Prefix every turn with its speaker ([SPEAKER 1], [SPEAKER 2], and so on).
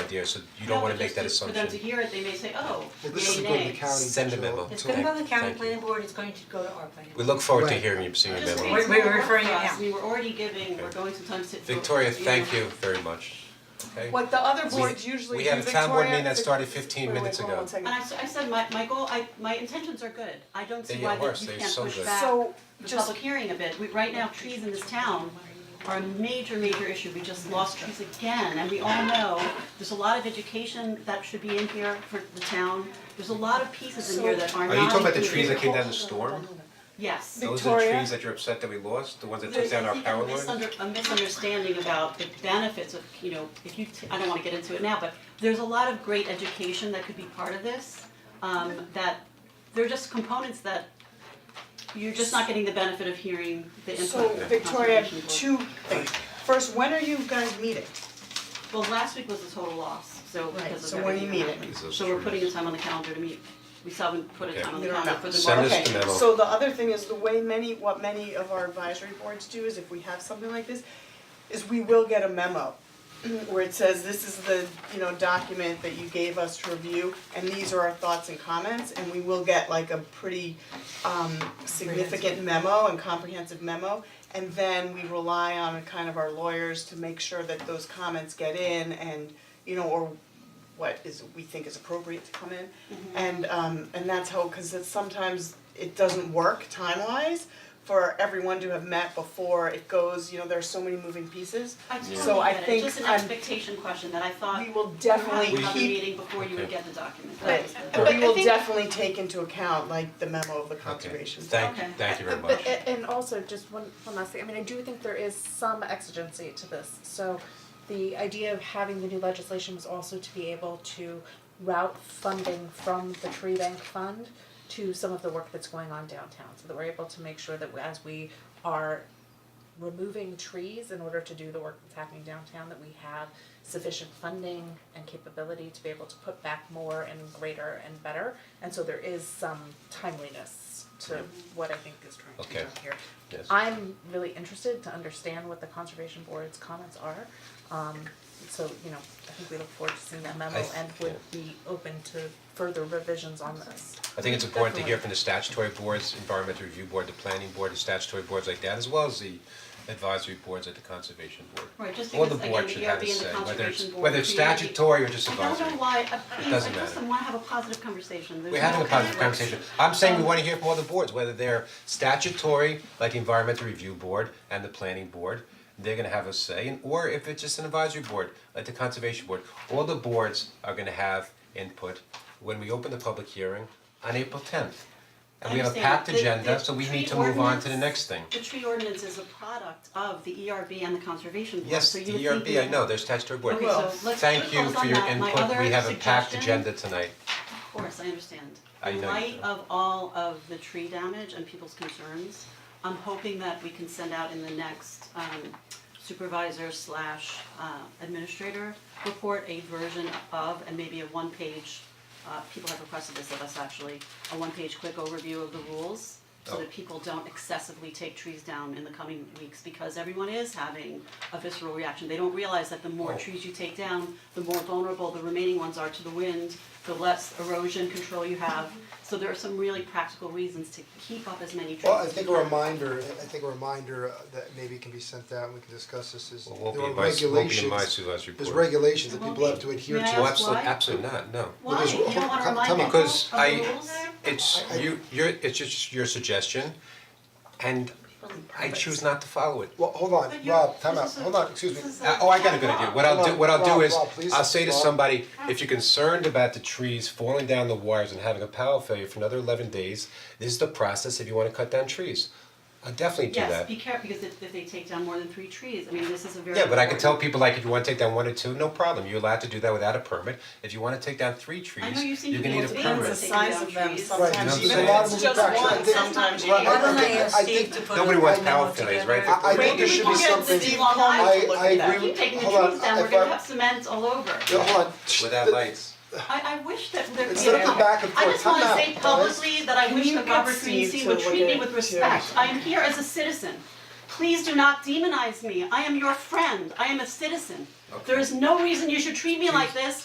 [SPEAKER 1] idea, so you don't wanna make that assumption.
[SPEAKER 2] For them to hear it, they may say, oh,
[SPEAKER 3] Well, this
[SPEAKER 2] yay,
[SPEAKER 3] doesn't go to the
[SPEAKER 2] nay.
[SPEAKER 3] county.
[SPEAKER 1] Send a
[SPEAKER 3] until-
[SPEAKER 1] memo.
[SPEAKER 4] It's gonna go to the county
[SPEAKER 1] Thank you.
[SPEAKER 4] planning board, it's going to go to our planning.
[SPEAKER 1] We
[SPEAKER 4] board.
[SPEAKER 1] look forward to
[SPEAKER 3] Right.
[SPEAKER 1] hearing you, seeing your
[SPEAKER 2] Just
[SPEAKER 1] memo.
[SPEAKER 2] means
[SPEAKER 4] We're- we're
[SPEAKER 2] more work
[SPEAKER 4] referring
[SPEAKER 2] for
[SPEAKER 4] it
[SPEAKER 2] us.
[SPEAKER 4] now.
[SPEAKER 2] we were already giving, we're going sometimes to.
[SPEAKER 1] Victoria, thank you very much, okay?
[SPEAKER 5] What the other
[SPEAKER 1] We-
[SPEAKER 5] boards usually do,
[SPEAKER 1] We had
[SPEAKER 5] Victoria.
[SPEAKER 1] a town board meeting that started fifteen
[SPEAKER 5] Wait, wait,
[SPEAKER 1] minutes
[SPEAKER 5] hold on
[SPEAKER 1] ago.
[SPEAKER 5] one second.
[SPEAKER 2] And I s- I said, my my goal, I my intentions are good, I don't
[SPEAKER 1] They
[SPEAKER 2] see
[SPEAKER 1] get
[SPEAKER 2] why
[SPEAKER 1] worse.
[SPEAKER 2] that you
[SPEAKER 1] They're
[SPEAKER 2] can't
[SPEAKER 1] so
[SPEAKER 2] push
[SPEAKER 1] good.
[SPEAKER 2] back
[SPEAKER 5] So,
[SPEAKER 2] the
[SPEAKER 5] just,
[SPEAKER 2] public hearing a bit, we, right now, trees in this town are a major, major issue, we just lost trees again, and we all know, there's a lot of education that should be in here for the town, there's a lot of pieces in here that are not
[SPEAKER 6] Are you talking about the trees
[SPEAKER 2] included.
[SPEAKER 6] that came down the storm?
[SPEAKER 2] Yes.
[SPEAKER 6] Those are the
[SPEAKER 5] Victoria?
[SPEAKER 6] trees that you're upset that we lost, the ones that took
[SPEAKER 2] There's,
[SPEAKER 6] down
[SPEAKER 2] I
[SPEAKER 6] our
[SPEAKER 2] think,
[SPEAKER 6] power
[SPEAKER 2] a
[SPEAKER 6] lines?
[SPEAKER 2] misunder, a misunderstanding about the benefits of, you know, if you, t- I don't wanna get into it now, but there's a lot of great education that could be part of this. Um, that, they're just components that you're just not getting the benefit of hearing the input.
[SPEAKER 5] so
[SPEAKER 2] of the
[SPEAKER 5] Victoria,
[SPEAKER 2] Conservation Board.
[SPEAKER 5] two things. First, when are you guys meeting?
[SPEAKER 2] Well, last week was a total loss, so because of
[SPEAKER 5] Right,
[SPEAKER 2] everything.
[SPEAKER 5] so when are you
[SPEAKER 2] that
[SPEAKER 5] meeting?
[SPEAKER 2] happened.
[SPEAKER 1] Is those
[SPEAKER 2] So we're
[SPEAKER 1] trees?
[SPEAKER 2] putting a time on the calendar to meet, we still haven't put a
[SPEAKER 1] Okay.
[SPEAKER 2] time on
[SPEAKER 5] You
[SPEAKER 2] the
[SPEAKER 5] don't
[SPEAKER 2] calendar
[SPEAKER 5] know.
[SPEAKER 2] for the
[SPEAKER 1] Send
[SPEAKER 2] March.
[SPEAKER 1] us the memo.
[SPEAKER 5] Okay, so the other thing is the way many, what many of our advisory boards do is if we have something like this, is we will get a memo
[SPEAKER 2] Mm-hmm.
[SPEAKER 5] where it says, this is the, you know, document that you gave us to review, and these are our thoughts and comments, and we will get like a pretty um significant memo and comprehensive memo. And then we rely on kind of our lawyers to make sure that those comments get in and, you know, or what is we think is appropriate to come in. And um and that's how, cause it's sometimes it doesn't work time wise for everyone to have met before it goes, you know, there are so many moving pieces.
[SPEAKER 2] I totally
[SPEAKER 5] So I
[SPEAKER 2] get it.
[SPEAKER 5] think
[SPEAKER 2] just an
[SPEAKER 5] I'm-
[SPEAKER 2] expectation question that I thought.
[SPEAKER 5] Uh, We will
[SPEAKER 2] you had
[SPEAKER 5] definitely
[SPEAKER 2] another
[SPEAKER 5] keep-
[SPEAKER 2] meeting before you would get the document, that
[SPEAKER 5] But
[SPEAKER 2] was the.
[SPEAKER 5] but we will definitely take into account like the memo of the conservation.
[SPEAKER 1] Thank you,
[SPEAKER 2] Okay.
[SPEAKER 1] thank you very much.
[SPEAKER 7] But a- and also, just one one last thing, I mean, I do think there is some exigency to this, so the idea of having the new legislation was also to be able to route funding from the tree bank fund to some of the work that's going on downtown, so that we're able to make sure that as we are removing trees in order to do the work that's happening downtown, that we have sufficient funding and capability to be able to put back more and greater and better. And so there is some timeliness to what I think is trying to be
[SPEAKER 1] Okay.
[SPEAKER 7] done here.
[SPEAKER 1] Yes.
[SPEAKER 7] I'm really interested to understand what the conservation board's comments are. Um, so, you know, I think we look forward to seeing that memo
[SPEAKER 1] I th-
[SPEAKER 7] and would be open to further revisions on this.
[SPEAKER 1] I think it's important to hear from the statutory boards, environmental review board, the planning board, the statutory boards like that, as well as the advisory boards at the conservation board.
[SPEAKER 2] Right, just
[SPEAKER 1] All the
[SPEAKER 2] because,
[SPEAKER 1] boards
[SPEAKER 2] again,
[SPEAKER 1] should
[SPEAKER 2] the
[SPEAKER 1] have a
[SPEAKER 2] ERB and the
[SPEAKER 1] say, whether it's,
[SPEAKER 2] conservation board
[SPEAKER 1] whether it's
[SPEAKER 2] created-
[SPEAKER 1] statutory or just
[SPEAKER 2] I
[SPEAKER 1] advisory.
[SPEAKER 2] don't know why, uh, I, I
[SPEAKER 1] doesn't
[SPEAKER 2] just
[SPEAKER 1] matter.
[SPEAKER 2] wanna have a positive conversation, there's
[SPEAKER 1] We're
[SPEAKER 2] no
[SPEAKER 1] having a positive
[SPEAKER 2] conflict.
[SPEAKER 1] conversation. I'm saying we wanna hear from all the boards, whether they're statutory, like the environmental review board and the planning board, they're gonna have a say, and or if it's just an advisory board, like the conservation board, all the boards are gonna have input when we open the public hearing on April tenth. And we have a
[SPEAKER 2] Understand.
[SPEAKER 1] packed
[SPEAKER 2] The- the
[SPEAKER 1] agenda, so we
[SPEAKER 2] tree
[SPEAKER 1] need to move on to the
[SPEAKER 2] ordinance-
[SPEAKER 1] next thing.
[SPEAKER 2] The tree ordinance is a product of the ERB and the conservation board,
[SPEAKER 1] Yes,
[SPEAKER 2] so
[SPEAKER 1] the
[SPEAKER 2] you would think
[SPEAKER 1] ERB, I know, there's statutory board.
[SPEAKER 2] Okay, so let's
[SPEAKER 1] Thank you
[SPEAKER 2] close
[SPEAKER 1] for
[SPEAKER 2] on
[SPEAKER 1] your
[SPEAKER 2] that. My
[SPEAKER 1] input, we
[SPEAKER 2] other
[SPEAKER 1] have a packed
[SPEAKER 2] suggestion-
[SPEAKER 1] agenda tonight.
[SPEAKER 2] Of course, I understand.
[SPEAKER 1] I know you
[SPEAKER 2] In light
[SPEAKER 1] do.
[SPEAKER 2] of all of the tree damage and people's concerns, I'm hoping that we can send out in the next um, supervisor slash uh, administrator report a version of, and maybe a one-page, uh, people have requested this of us actually, a one-page quick overview of the rules so that people don't excessively take trees down in the coming weeks because everyone is having a visceral reaction. They don't realize that the more
[SPEAKER 1] Oh.
[SPEAKER 2] trees you take down, the more vulnerable the remaining ones are to the wind, the less erosion control you have. So there are some really practical reasons to keep up as many trees.
[SPEAKER 3] Well, I
[SPEAKER 2] as
[SPEAKER 3] think
[SPEAKER 2] you
[SPEAKER 3] a
[SPEAKER 2] can.
[SPEAKER 3] reminder, I think a reminder uh, that maybe can be sent out, and we can discuss this is
[SPEAKER 1] It
[SPEAKER 3] there
[SPEAKER 1] won't
[SPEAKER 3] are
[SPEAKER 1] be my, it won't be in my
[SPEAKER 3] regulations,
[SPEAKER 1] supervisory
[SPEAKER 3] there's
[SPEAKER 1] board.
[SPEAKER 3] regulations
[SPEAKER 2] It
[SPEAKER 3] that
[SPEAKER 2] won't
[SPEAKER 3] people
[SPEAKER 2] be.
[SPEAKER 3] have to adhere to.
[SPEAKER 2] May I
[SPEAKER 1] Oh,
[SPEAKER 2] ask
[SPEAKER 1] absolutely,
[SPEAKER 2] why?
[SPEAKER 1] absolutely not, no.
[SPEAKER 3] Well,
[SPEAKER 2] Why?
[SPEAKER 3] there's-
[SPEAKER 2] You don't wanna
[SPEAKER 3] come-
[SPEAKER 2] remind
[SPEAKER 3] come
[SPEAKER 2] people
[SPEAKER 3] on.
[SPEAKER 2] of the rules?
[SPEAKER 1] Because I, it's you, you're, it's just your suggestion, and I choose not to follow it.
[SPEAKER 3] Well, hold on,
[SPEAKER 2] But you're-
[SPEAKER 3] Rob, time out,
[SPEAKER 2] this is a-
[SPEAKER 3] hold on, excuse me.
[SPEAKER 2] this is a-
[SPEAKER 1] Uh, oh, I got a good idea, what I'll do, what I'll do is, I'll say to somebody, if you're concerned about the trees falling down the wires and having a power failure for another eleven days, this is the process if you wanna cut down trees. I'll definitely do that.
[SPEAKER 2] Yes, be careful, because if if they take down more than three trees, I mean, this is a very
[SPEAKER 1] Yeah, but I can
[SPEAKER 2] important-
[SPEAKER 1] tell people like if you wanna take down one or two, no problem, you're allowed to do that without a permit. If you wanna take down three trees,
[SPEAKER 2] I know you seem
[SPEAKER 1] you're
[SPEAKER 2] to be
[SPEAKER 1] gonna need a permit.
[SPEAKER 2] able to balance
[SPEAKER 5] the size of them,
[SPEAKER 3] Right,
[SPEAKER 5] sometimes
[SPEAKER 1] No,
[SPEAKER 5] even
[SPEAKER 1] so-
[SPEAKER 5] if it's just
[SPEAKER 3] Right.
[SPEAKER 5] one, sometimes you
[SPEAKER 3] Right.
[SPEAKER 5] have
[SPEAKER 3] I don't
[SPEAKER 8] Why
[SPEAKER 3] think-
[SPEAKER 8] don't I ask
[SPEAKER 3] I
[SPEAKER 8] Steve
[SPEAKER 3] think-
[SPEAKER 8] to put
[SPEAKER 1] nobody
[SPEAKER 8] a
[SPEAKER 1] wants
[SPEAKER 8] memo
[SPEAKER 1] power failures,
[SPEAKER 8] together?
[SPEAKER 1] right?
[SPEAKER 3] I I think
[SPEAKER 2] Maybe
[SPEAKER 3] there
[SPEAKER 2] we
[SPEAKER 3] should
[SPEAKER 2] can
[SPEAKER 3] be
[SPEAKER 2] get
[SPEAKER 3] something,
[SPEAKER 2] Steve
[SPEAKER 3] hold
[SPEAKER 2] Long
[SPEAKER 3] on,
[SPEAKER 2] Island to
[SPEAKER 3] I I
[SPEAKER 2] look at that.
[SPEAKER 3] agree,
[SPEAKER 2] Keep taking the
[SPEAKER 3] hold on,
[SPEAKER 2] trees down, we're
[SPEAKER 3] if
[SPEAKER 2] gonna
[SPEAKER 3] I-
[SPEAKER 2] have cement all over.
[SPEAKER 3] yeah, hold on.
[SPEAKER 1] Without lights.
[SPEAKER 2] I I wish that there
[SPEAKER 3] It's
[SPEAKER 2] you
[SPEAKER 3] not the
[SPEAKER 2] know,
[SPEAKER 3] back and
[SPEAKER 2] I
[SPEAKER 3] forth.
[SPEAKER 2] just
[SPEAKER 3] Time
[SPEAKER 2] wanna
[SPEAKER 3] out,
[SPEAKER 2] say
[SPEAKER 3] guys.
[SPEAKER 2] publicly that I wish
[SPEAKER 5] you
[SPEAKER 2] that
[SPEAKER 5] get
[SPEAKER 2] Robert
[SPEAKER 5] Steve
[SPEAKER 2] Greenstein
[SPEAKER 5] to
[SPEAKER 2] would
[SPEAKER 5] look
[SPEAKER 2] treat me
[SPEAKER 5] at
[SPEAKER 2] with
[SPEAKER 5] it, too?
[SPEAKER 2] respect. I am here as a citizen. Please do not demonize me. I am your friend. I am a citizen. There is no reason you should treat me like this.